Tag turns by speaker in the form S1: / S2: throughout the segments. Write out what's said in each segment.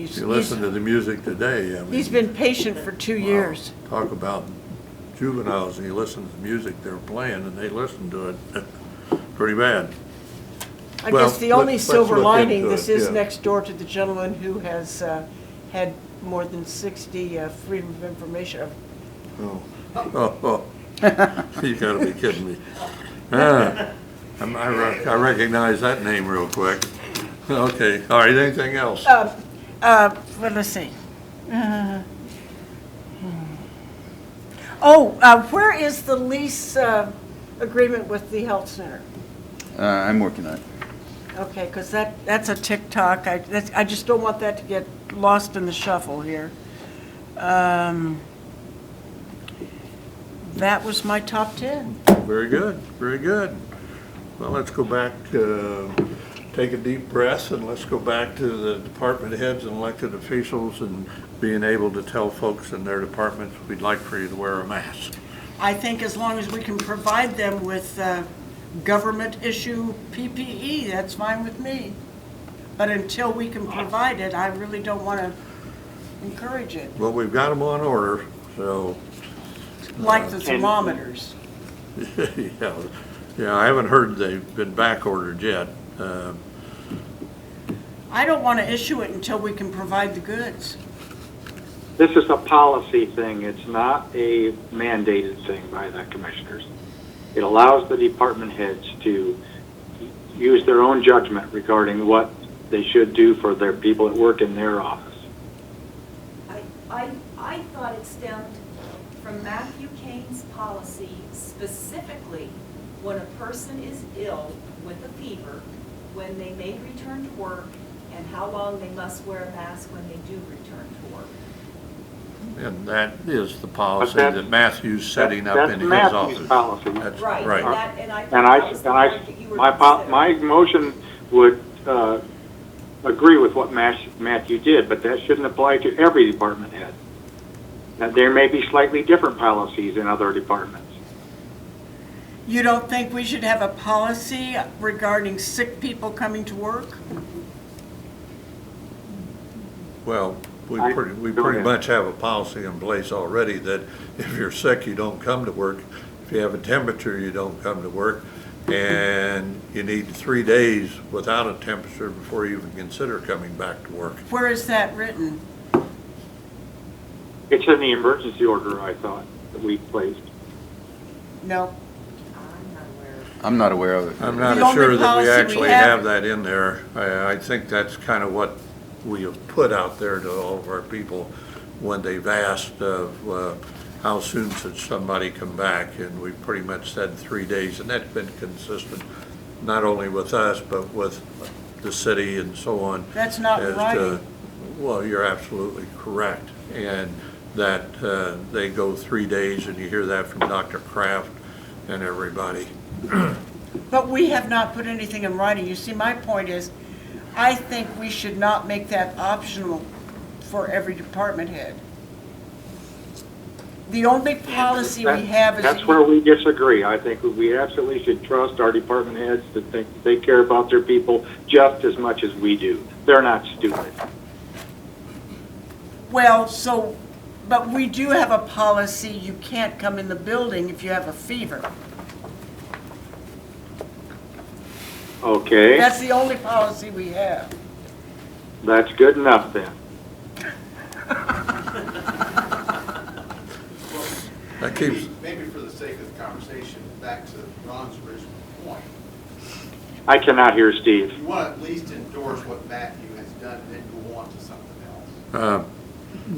S1: If you listen to the music today, I mean.
S2: He's been patient for two
S1: wow,
S2: years.
S1: Talk about juveniles, and you listen to the music they're playing, and they listen to it pretty bad.
S2: I
S1: Well,
S2: guess the only
S1: let's- let's
S2: silver
S1: look
S2: lining,
S1: into
S2: this
S1: it,
S2: is
S1: yeah.
S2: next door to the gentleman who has uh, had more than 60 uh, Freedom of Information, of
S1: Oh, oh, oh. you gotta be kidding me. Ah, I'm- I rec- I recognize that name real quick. Okay, all right, anything else?
S2: Um, uh, well, let's see. Uh, hmm. Oh, uh, where is the lease uh, agreement with the health center?
S3: Uh, I'm working on it.
S2: Okay, because that, that's a TikTok. I, that's, I just don't want that to get lost in the shuffle here. Um, That was my top 10.
S1: Very good, very good. Well, let's go back, uh, take a deep breath, and let's go back to the department heads and elected officials and being able to tell folks in their departments, we'd like for you to wear a mask.
S2: I think as long as we can provide them with uh, government issue PPE, that's fine with me. But until we can provide it, I really don't want to encourage it,
S1: Well, we've got them on order, so,
S2: like the thermometers.
S1: yeah, yeah, I haven't heard they've been back ordered yet. Uh,
S2: I don't want to issue it until we can provide the goods.
S4: This is a policy thing. It's not a mandated thing by the commissioners. It allows the department heads to use their own judgment regarding what they should do for their people that work in their office.
S5: I, I, I thought it stemmed from Matthew Kane's policy specifically when a person is ill with a fever, when they may return to work, and how long they must wear a mask when they do return to work.
S1: And that is the policy
S4: that's-
S1: that Matthew's setting up
S4: that's
S1: in his
S4: Matthew's
S1: office.
S4: policy.
S1: That's
S5: Right,
S1: right.
S5: and that, and I
S4: And
S5: thought
S4: I,
S5: that was
S4: and
S5: the point that you
S4: I,
S5: were
S4: my, po- my
S5: considering.
S4: motion would, uh, agree with what Mash- Matthew did, but that shouldn't apply to every department head. Now, there may be slightly different policies in other departments.
S2: You don't think we should have a policy regarding sick people coming to work?
S1: Well, we
S4: I-
S1: pretty, we
S4: go
S1: pretty
S4: ahead.
S1: much have a policy in place already that if you're sick, you don't come to work. If you have a temperature, you don't come to work. And you need three days without a temperature before you even consider coming back to work.
S2: Where is that written?
S4: It's in the emergency order, I thought, that we placed.
S2: No.
S5: I'm not aware of
S3: I'm not aware of it.
S1: I'm
S2: The only
S1: not sure that
S2: policy
S1: we
S2: we
S1: actually
S2: have-
S1: have that in there. I, I think that's kind of what we have put out there to all of our people when they've asked of, uh, how soon should somebody come back? And we pretty much said three days, and that's been consistent, not only with us, but with the city and so on.
S2: That's not
S1: as to-
S2: right.
S1: Well, you're absolutely correct. And that, uh, they go three days, and you hear that from Dr. Kraft and everybody.
S2: But we have not put anything in writing. You see, my point is, I think we should not make that optional for every department head. The only policy we
S4: That-
S2: have is.
S4: That's where we disagree. I think we absolutely should trust our department heads to think they care about their people just as much as we do. They're not stupid.
S2: Well, so, but we do have a policy, you can't come in the building if you have a fever.
S4: Okay,
S2: That's the only policy we have.
S4: that's good enough then.
S1: That keeps,
S6: Maybe maybe for the sake of the conversation, back to Ron's original point,
S4: I cannot hear Steve.
S6: you want to at least endorse what Matthew has done and then go on to something else.
S1: uh,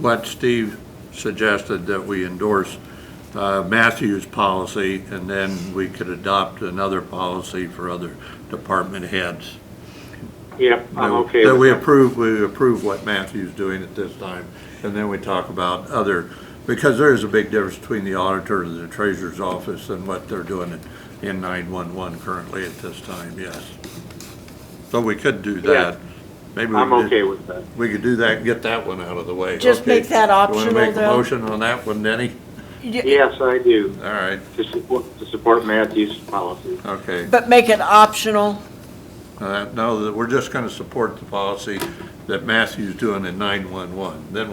S1: what Steve suggested that we endorse uh, Matthew's policy, and then we could adopt another policy for other department heads.
S4: Yep, I'm okay
S1: That
S4: with
S1: we
S4: that.
S1: approve, we approve what Matthew's doing at this time, and then we talk about other, because there is a big difference between the auditor and the treasurer's office and what they're doing in- in 911 currently at this time, yes. So we could do
S4: Yeah.
S1: that. Maybe we
S4: I'm
S1: could-
S4: okay with that.
S1: We could do that and get that one out of the way.
S2: Just
S1: Okay.
S2: make that
S1: You want to make a
S2: optional, though?
S1: motion on that one, Denny?
S2: You-
S4: Yes, I do,
S1: All right,
S4: to support, to support Matthew's policy.
S1: okay.
S2: But make it optional.
S1: Uh, No, that we're just going to support the policy that Matthew's doing in 911, then we'll